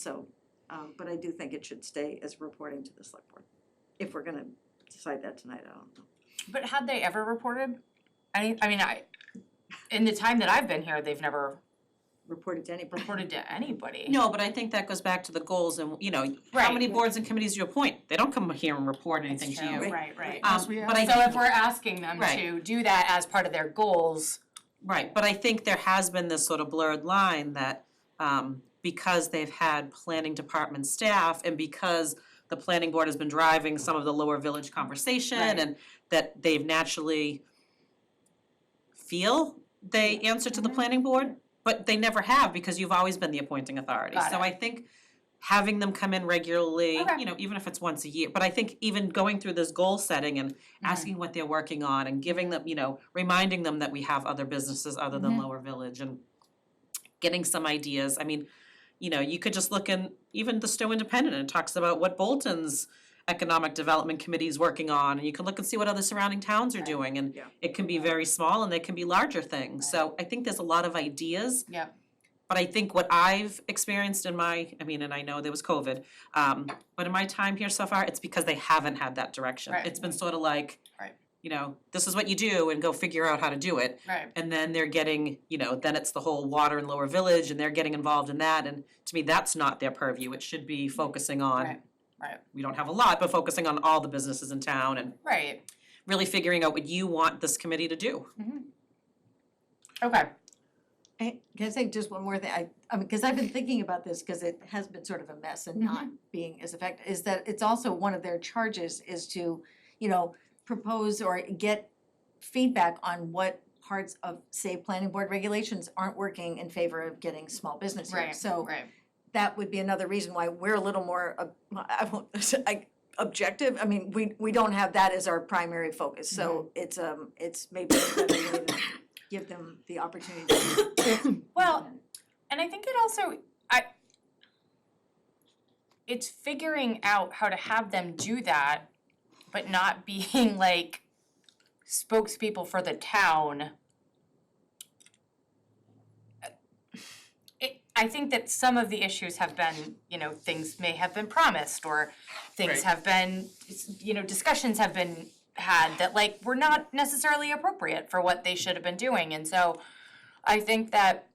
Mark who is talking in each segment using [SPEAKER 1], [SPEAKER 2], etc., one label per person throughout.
[SPEAKER 1] So, um, but I do think it should stay as reporting to the select board. If we're gonna decide that tonight, I don't know.
[SPEAKER 2] But had they ever reported? I I mean, I, in the time that I've been here, they've never
[SPEAKER 1] Report it to anybody.
[SPEAKER 2] reported to anybody.
[SPEAKER 3] No, but I think that goes back to the goals and, you know, how
[SPEAKER 2] Right.
[SPEAKER 3] many boards and committees you appoint, they don't come here and report anything to you.
[SPEAKER 1] true.
[SPEAKER 2] Right, right.
[SPEAKER 3] Um,
[SPEAKER 4] Yes, we
[SPEAKER 3] but I
[SPEAKER 2] So if
[SPEAKER 3] think-
[SPEAKER 2] we're asking them
[SPEAKER 3] Right.
[SPEAKER 2] to do that as part of their goals,
[SPEAKER 3] Right, but I think there has been this sort of blurred line that um because they've had planning department staff and because the planning board has been driving some of the lower village conversation
[SPEAKER 2] Right.
[SPEAKER 3] and that they've naturally feel they answer to the
[SPEAKER 2] Mm-hmm.
[SPEAKER 3] planning board, but they never have because you've always been the appointing authority.
[SPEAKER 2] Got
[SPEAKER 3] So
[SPEAKER 2] it.
[SPEAKER 3] I think having them come in regularly,
[SPEAKER 2] Okay.
[SPEAKER 3] you know, even if it's once a year, but I think even going through this goal setting and
[SPEAKER 1] Mm-hmm.
[SPEAKER 3] asking what they're working on and giving them, you know, reminding them that we have other businesses other than
[SPEAKER 1] Mm-hmm.
[SPEAKER 3] Lower Village and getting some ideas. I mean, you know, you could just look in even the Stowe Independent and it talks about what Bolton's economic development committee is working on and you can look and see what other surrounding towns are doing and
[SPEAKER 1] Yeah.
[SPEAKER 3] it can be very small and they can be larger things. So I think there's a lot of ideas.
[SPEAKER 2] Yep.
[SPEAKER 3] But I think what I've experienced in my, I mean, and I know there was COVID, um, but in my time here so far, it's because they haven't had that direction.
[SPEAKER 2] Right.
[SPEAKER 3] It's been sort of like,
[SPEAKER 2] Right.
[SPEAKER 3] you know, this is what you do and go figure out how to do it.
[SPEAKER 2] right,
[SPEAKER 3] And then they're getting, you know, then it's the whole water and lower village and they're getting involved in that. And to me, that's not their purview. It should be focusing on,
[SPEAKER 2] Mm-hmm. Right, right.
[SPEAKER 3] we don't have a lot, but focusing on all the businesses in town and
[SPEAKER 2] right,
[SPEAKER 3] really figuring out what you want this committee to do.
[SPEAKER 2] okay.
[SPEAKER 4] I, can I say just one more thing? I, I mean, cause I've been thinking about this, cause it has been sort of a mess and not being as effective, is that it's also one of their charges is to, you know, propose or get feedback on what parts of, say, planning board regulations aren't working in favor of getting small business here.
[SPEAKER 2] Right,
[SPEAKER 4] So
[SPEAKER 2] Right,
[SPEAKER 4] that would be another reason why we're a little more, ob- I won't, I, objective, I mean, we, we don't have that as our primary focus, so it's, um, it's maybe a better way to give them the opportunity to.
[SPEAKER 2] Well, and I think it also, I, it's figuring out how to have them do that, but not being like spokespeople for the town. It, I think that some of the issues have been, you know, things may have been promised or things
[SPEAKER 3] Right.
[SPEAKER 2] have been, you know, discussions have been had that like were not necessarily appropriate for what they should have been doing, and so I think that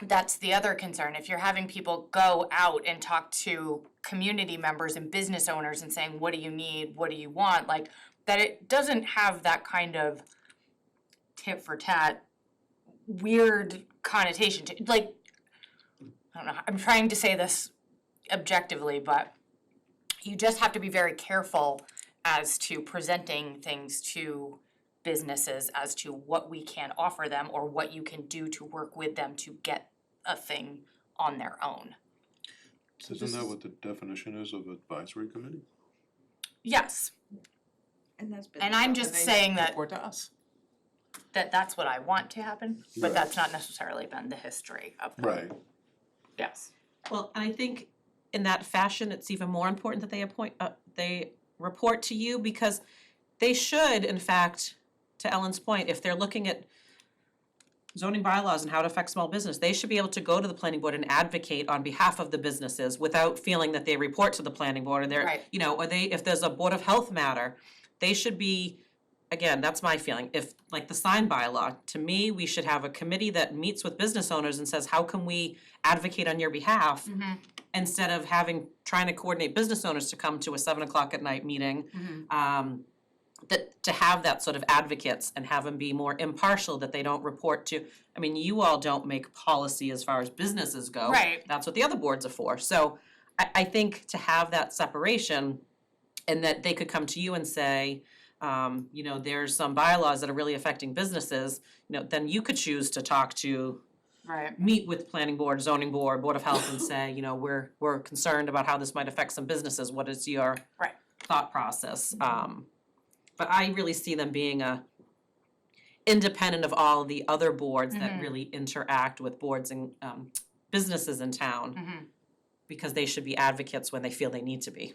[SPEAKER 2] that's the other concern, if you're having people go out and talk to community members and business owners and saying, what do you need, what do you want, like, that it doesn't have that kind of tit for tat weird connotation to, like, I don't know, I'm trying to say this objectively, but you just have to be very careful as to presenting things to businesses as to what we can offer them or what you can do to work with them to get a thing on their own.
[SPEAKER 5] Isn't that what the definition is of advisory committee?
[SPEAKER 2] Yes,
[SPEAKER 1] And that's been.
[SPEAKER 2] and I'm just saying that
[SPEAKER 6] Report to us.
[SPEAKER 2] that that's what I want to happen, but
[SPEAKER 5] Right.
[SPEAKER 2] that's not necessarily been the history of that.
[SPEAKER 5] Right.
[SPEAKER 2] Yes.
[SPEAKER 3] Well, and I think in that fashion, it's even more important that they appoint, uh, they report to you because they should, in fact, to Ellen's point, if they're looking at zoning bylaws and how it affects small business, they should be able to go to the planning board and advocate on behalf of the businesses without feeling that they report to the planning board or they're,
[SPEAKER 2] Right.
[SPEAKER 3] you know, or they, if there's a board of health matter, they should be, again, that's my feeling, if, like the sign bylaw, to me, we should have a committee that meets with business owners and says, how can we advocate on your behalf? Instead of having, trying to coordinate business owners to come to a seven o'clock at night meeting. Um, that, to have that sort of advocates and have them be more impartial, that they don't report to, I mean, you all don't make policy as far as businesses go.
[SPEAKER 2] Right.
[SPEAKER 3] That's what the other boards are for, so I, I think to have that separation and that they could come to you and say, um, you know, there's some bylaws that are really affecting businesses, you know, then you could choose to talk to,
[SPEAKER 2] Right.
[SPEAKER 3] meet with planning board, zoning board, board of health and say, you know, we're, we're concerned about how this might affect some businesses, what is your
[SPEAKER 2] Right.
[SPEAKER 3] thought process, um, but I really see them being a independent of all the other boards that
[SPEAKER 2] Mhm.
[SPEAKER 3] really interact with boards and, um, businesses in town,
[SPEAKER 2] Mhm.
[SPEAKER 3] because they should be advocates when they feel they need to be.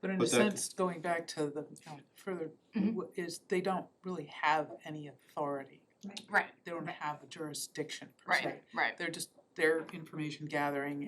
[SPEAKER 6] But in a
[SPEAKER 5] But that-
[SPEAKER 6] sense, going back to the, you know, further, w- is they don't really have any authority.
[SPEAKER 2] Right.
[SPEAKER 6] They don't have a jurisdiction per se.
[SPEAKER 2] Right. Right.
[SPEAKER 6] They're just, they're information gathering